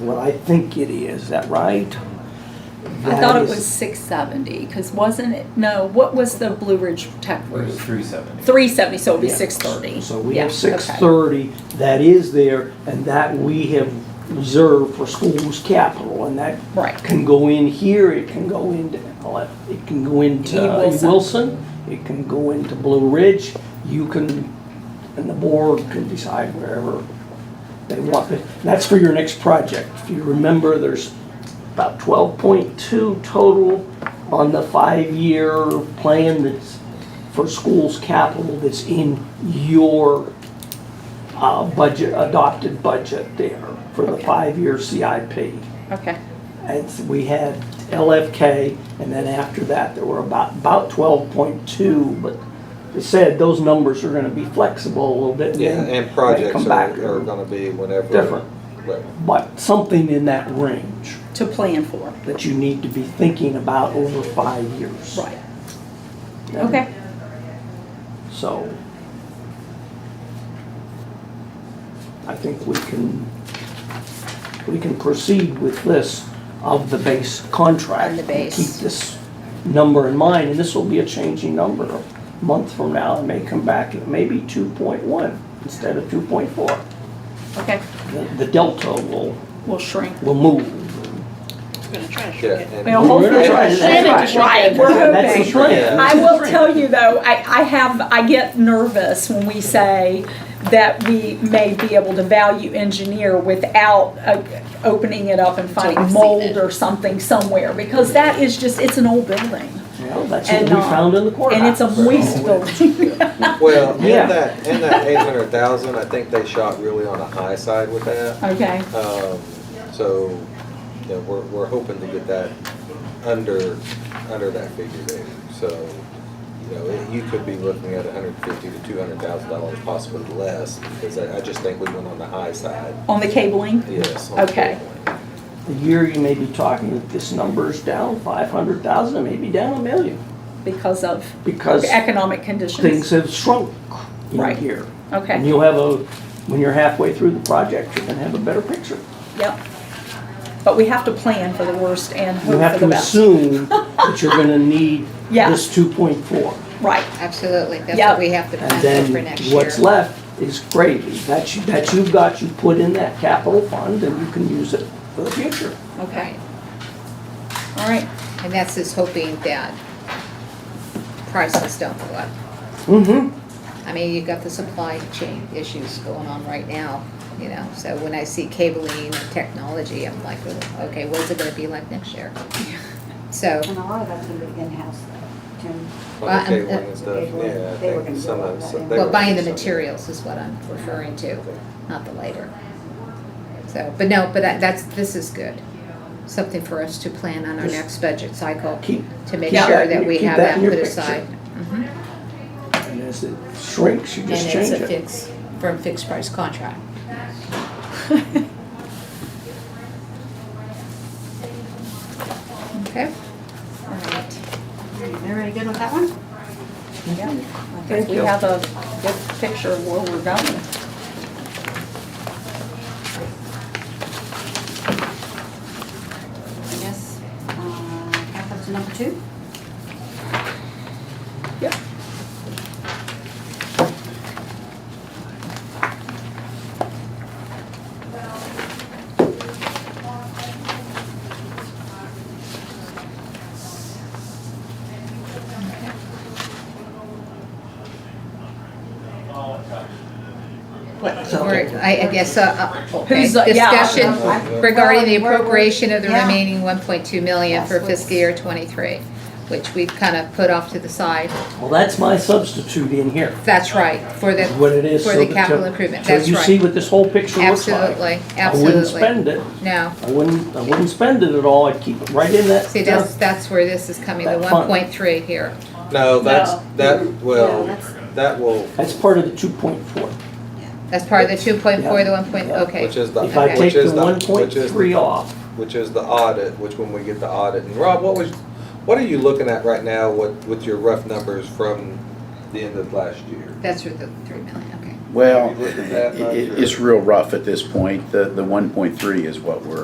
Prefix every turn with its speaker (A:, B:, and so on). A: what I think it is, is that right?
B: I
A: That
B: thought it
A: is-
B: was six seventy, because wasn't it, no, what was the Blue Ridge Tech
C: It was
B: roof?
C: three seventy.
B: Three seventy, so it'll be
A: Yeah.
B: six thirty.
A: So we have six thirty that is there and that we have reserved for schools capital and that
B: Right.
A: can go in here, it can go into, Ele- it can go into
B: E.
A: uh,
B: Wilson.
A: Wilson, it can go into Blue Ridge, you can, and the board can decide wherever they want it. That's for your next project. If you remember, there's about twelve point two total on the five-year plan that's for schools capital that's in your uh, budget, adopted budget there for the
B: Okay.
A: five-year CIP.
B: Okay,
A: And s- we had LFK, and then after that, there were about, about twelve point two, but they said those numbers are gonna be flexible a little bit.
D: Yeah,
A: then
D: and
A: they
D: projects
A: come
D: are,
A: back,
D: are gonna be whenever.
A: Different.
D: Well,
A: But something in that range
B: to plan for,
A: that you need to be thinking about over five years.
B: right,
A: And
B: okay,
A: So. I think we can, we can proceed with this of the base contract.
B: On the base.
A: Keep this number in mind, and this will be a changing number a month from now. It may come back, it may be two point one instead of two point four.
B: okay,
A: The the delta will,
B: we'll shrink.
A: will move.
E: gonna try to
D: Yeah,
E: shrink it.
D: and.
B: Well, hopefully,
A: That's
B: we're
A: right, that's
B: right, we're
A: That's the
B: hoping.
A: trend.
B: I will tell you though, I, I have, I get nervous when we say that we may be able to value engineer without uh, opening it up and
E: I've
B: finding
E: seen
B: mold
E: it.
B: or something somewhere, because that is just, it's an old building.
A: Well, that's what we
B: And, uh,
A: found in the courthouse.
B: And it's a waste building.
D: Well,
A: Yeah.
D: in that, in that eight hundred thousand, I think they shot really on the high side with that.
B: Okay,
D: Um, so, you know, we're, we're hoping to get that under, under that figure there. So, you know, it- you could be looking at hundred fifty to two hundred thousand dollars, possibly less, because I, I just think we went on the high side,
B: on the cabling?
D: yes. on the
B: Okay.
D: point.
A: The year you may be talking that this number's down five hundred thousand, maybe down a million,
B: Because of
A: because
B: economic conditions?
A: things have shrunk in
B: Right.
A: here. And
B: Okay,
A: you'll have a, when you're halfway through the project, you're gonna have a better picture.
B: yep. But we have to plan for the worst and
A: You
B: hope
A: have
B: for the
A: to
B: best.
A: assume that you're gonna need
B: Yeah.
A: this two point four.
B: Right,
E: Absolutely, that's
B: Yeah.
E: what we have to
A: And
E: plan for for
A: then
E: next year.
A: what's left is gravy. That you, that you've got, you put in that capital fund and you can use it for the future.
B: okay,
E: Right,
B: all right.
E: and that's just hoping that prices don't go up.
A: Mm-hmm.
E: I mean, you've got the supply chain issues going on right now, you know, so when I see cabling and technology, I'm like, "Oh, okay, what's it gonna be like next year? So,
F: And a lot of that's gonna be in-house though, Jim.
E: Well,
D: On the
E: I'm-
D: cabling and stuff,
F: uh, they were-
D: yeah, I
F: they were
D: think
F: gonna
D: some
F: do all
D: of,
F: that
D: some.
F: in-
D: they
E: well,
D: were
E: buying the
D: doing some-
E: materials is what I'm referring to, not the labor. So, but no, but that, that's, this is good, something for us to plan on our
A: Just
E: next budget cycle,
A: Keep,
E: to make
A: keep
E: sure
A: that-
E: that we
A: keep
E: have
A: that
E: that
A: in your
E: put
A: picture.
E: aside. Mhm.
A: and as it shrinks, you
E: And
A: just change
E: it's
A: it.
E: a fixed, from fixed price contract. Okay,
B: All right.
F: Everybody good with that one?
B: Yeah, I think we have a good picture of where we're going.
F: I guess, uh, back up to number two.
B: Yep.
E: what, or, I, I guess, uh, uh, okay,
B: Who's, uh, yeah.
E: discussion
F: Well,
E: regarding the
F: we're- we're-
E: appropriation of the
F: yeah.
E: remaining one point two million
F: That's
E: for
F: what's-
E: fiscal year twenty-three, which we've kind of put off to the side.
A: Well, that's my substitute in here,
E: That's right, for the,
A: is what it is.
E: for
A: so
E: the
A: that-
E: capital
A: so-
E: improvement,
A: so
E: that's
A: you see
E: right,
A: what this whole picture looks like.
E: absolutely,
A: I wouldn't
E: absolutely,
A: spend it,
E: no.
A: I wouldn't, I wouldn't spend it at all, I'd keep it right in that.
E: See, that's, that's where this is coming, the
A: That fund.
E: one point three here.
D: No, that's, that, well,
F: Yeah, that's-
D: that will,
A: That's part of the two point four.
E: That's part of the two point four, the one point,
A: Yeah.
E: okay.
D: which is the,
A: If I
E: Okay.
A: take
D: which
A: the
D: is
A: one
D: the,
A: point
D: which is,
A: three off,
D: which is the audit, which when we get the audit, and Rob, what was, what are you looking at right now with, with your rough numbers from the end of last year?
E: That's where the three million, okay.
G: Well,
D: Have you
G: it,
D: looked at that much,
G: it-
D: or-
G: it's real rough at this point. The, the one point three is what we're